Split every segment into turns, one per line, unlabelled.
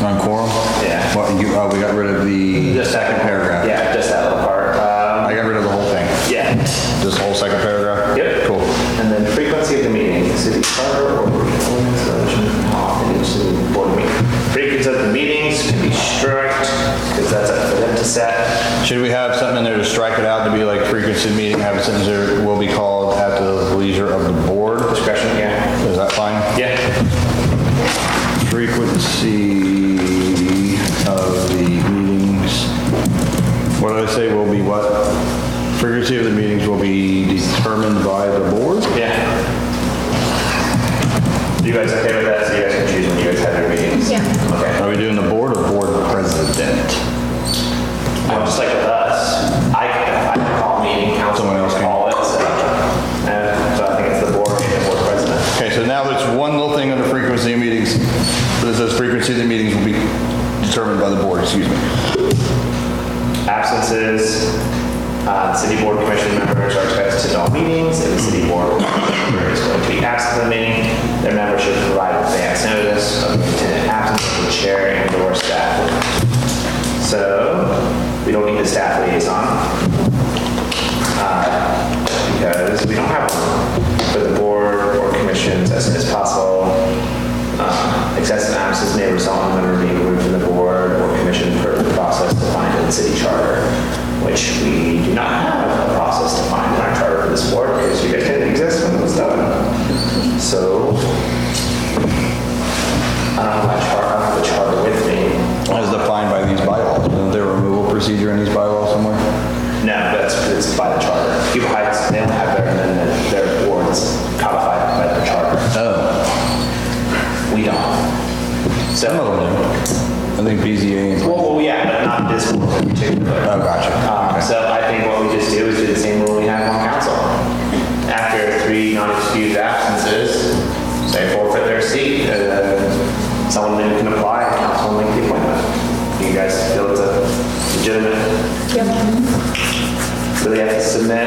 On Coral?
Yeah.
What, you, oh, we got rid of the.
Just second
Paragraph.
Yeah, just that little part.
I
Um,
got rid of the whole thing.
Yeah.
This whole second paragraph?
Yep.
Cool.
And then frequency of the meeting, city charter or ordinance resolution, and each city board meeting. Frequency of the meetings can be strict, because that's up for them to set.
Should we have something in there to strike it out to be like frequency of meeting, have a sentence there, will be called at the leisure of the board?
Discretion, yeah.
Is that fine?
Yeah.
Frequency of the meetings, what did I say, will be what? Frequency of the meetings will be determined by the board?
Yeah. You guys okay with that? So you guys can choose when you guys have your meetings?
Yeah.
Okay.
Are we doing the board or board president?
Well, just like with us, I can, I can call a meeting, council
Someone else can.
call it, so. And Uh, so I think it's the board, and the board president.
Okay, so now there's one little thing under frequency of meetings, that says frequency of the meetings will be determined by the board, excuse me.
Absences, uh, city board commission members are expected to attend all meetings, if the city board member is going to be absent from the meeting, their member should provide advance notice of the intended absence to the chair and or staff. So, we don't need the staff liaison, uh, because we don't have one for the board or commissions as soon as possible. Uh, Excessive absence may result in a member being removed from the board or commission per the process defined in the city charter, which we do not have a process defined in our charter for this board because you guys didn't exist when it was done. So I don't have my charter, I don't have the charter with me.
As defined by these bylaws, isn't there a removal procedure in these bylaws somewhere?
No, that's, it's by the charter. People hide, they don't have their amendment, their boards codified by their charter.
Oh.
We don't. So,
Some of them do. I think BZA and...
well, well, yeah, but not this one in particular.
Oh, gotcha.
Um, So I think what we just do is do the same rule we have on council. After three non-excused absences, they forfeit their seat, and then someone new can apply, and council will make the appointment. You guys feel it's a legitimate, so they have to submit,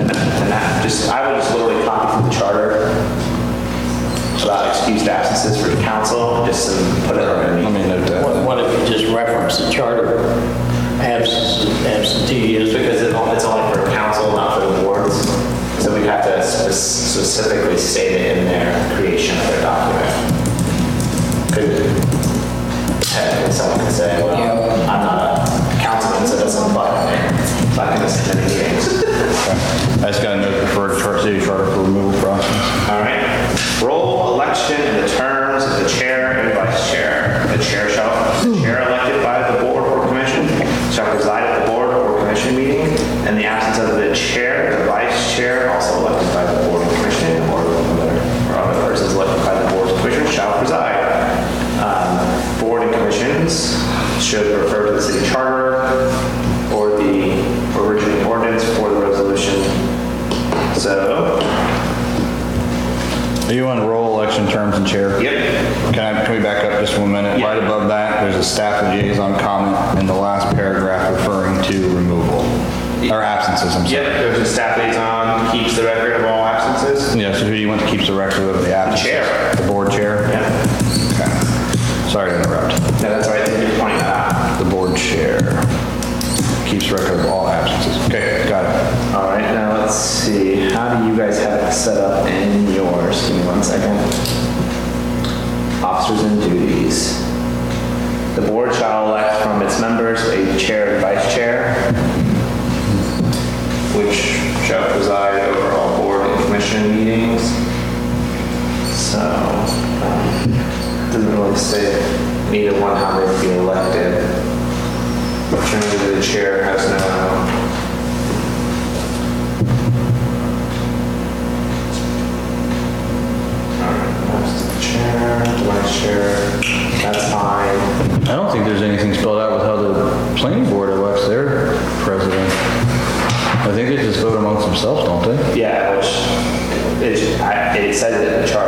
and that- and that, just, I would just literally copy from the charter about excused absences for the council, just and put it on.
Let me note that.
What what if you just reference the charter, absence, absenteeism?
Because it on- it's only for council, not for the boards. So we have to spe- specifically state it in their creation of their document. Could, technically someone could say, well, I'm not a councilman, so it doesn't apply to me. So I can just attend the meetings.
I just got a note for char- city charter for removal process.
All right. Roll election in the terms of the chair and vice chair. The chair shall, the chair elected by the board or commission shall preside at the board or commission meeting. In the absence of the chair, the vice chair, also elected by the board or commission, or other, or other persons elected by the board or commission shall preside. Um, Board and commissions should refer to the city charter or the original ordinance for the resolution. So,
Are you on roll election terms and chair?
yep,
Can I, can we back up just one minute?
Yeah.
Right above that, there's a staff liaison comment in the last paragraph referring to removal, or absences, I'm sorry.
Yep, there's a staff liaison, keeps the record of all absences.
Yeah, so who do you want to keep the record of the absences?
Chair.
The board chair?
Yeah,
Okay. Sorry to interrupt.
no, that's right, you're pointing that
The board chair keeps record of all absences. Okay, got it.
out. All right, now let's see, how do you guys have it set up in yours? Give me one second. Officers and duties. The board shall elect from its members a chair and vice chair, which shall preside over all board and commission meetings. So, um, doesn't really say neither one how they'd be elected. Generally, the chair has no. Alright, that's the Chair, vice chair, that's fine.
I don't think there's anything spelled out with how the planning board elects their president. I think they just vote amongst themselves, don't they?
Yeah, which is, I- it says it in the chart, Oh,